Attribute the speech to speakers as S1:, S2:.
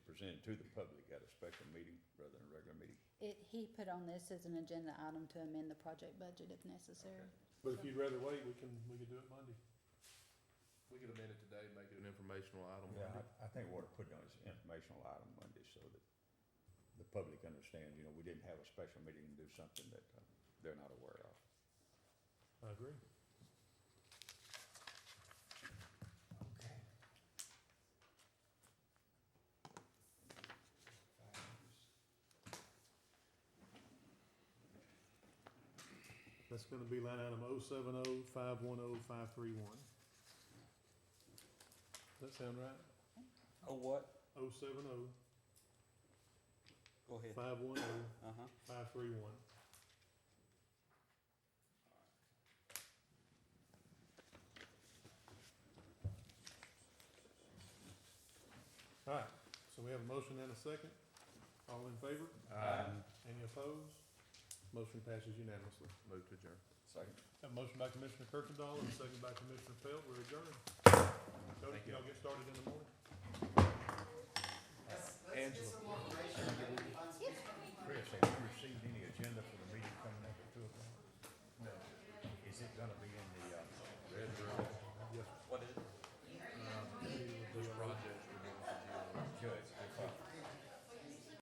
S1: presented to the public at a special meeting rather than a regular meeting.
S2: It, he put on this as an agenda item to amend the project budget if necessary.
S3: But if you'd rather wait, we can, we could do it Monday.
S4: We could amend it today, make it an informational item.
S1: Yeah, I, I think we ought to put it on as an informational item Monday so that the public understands, you know, we didn't have a special meeting and do something that uh, they're not aware of.
S3: I agree.
S5: Okay.
S3: That's gonna be line item oh seven oh five one oh five three one. Does that sound right?
S6: Oh, what?
S3: Oh seven oh
S6: Go ahead.
S3: five one oh
S6: Uh-huh.
S3: five three one. All right, so we have a motion and a second. All in favor? Any opposed? Motion passes unanimously.
S4: Move to adjourn.
S1: Second.
S3: Have a motion by Commissioner Kirkendall and a second by Commissioner Pelt. We're adjourned. Cody,
S4: Thank you.
S3: y'all get started in the morning?
S4: uh,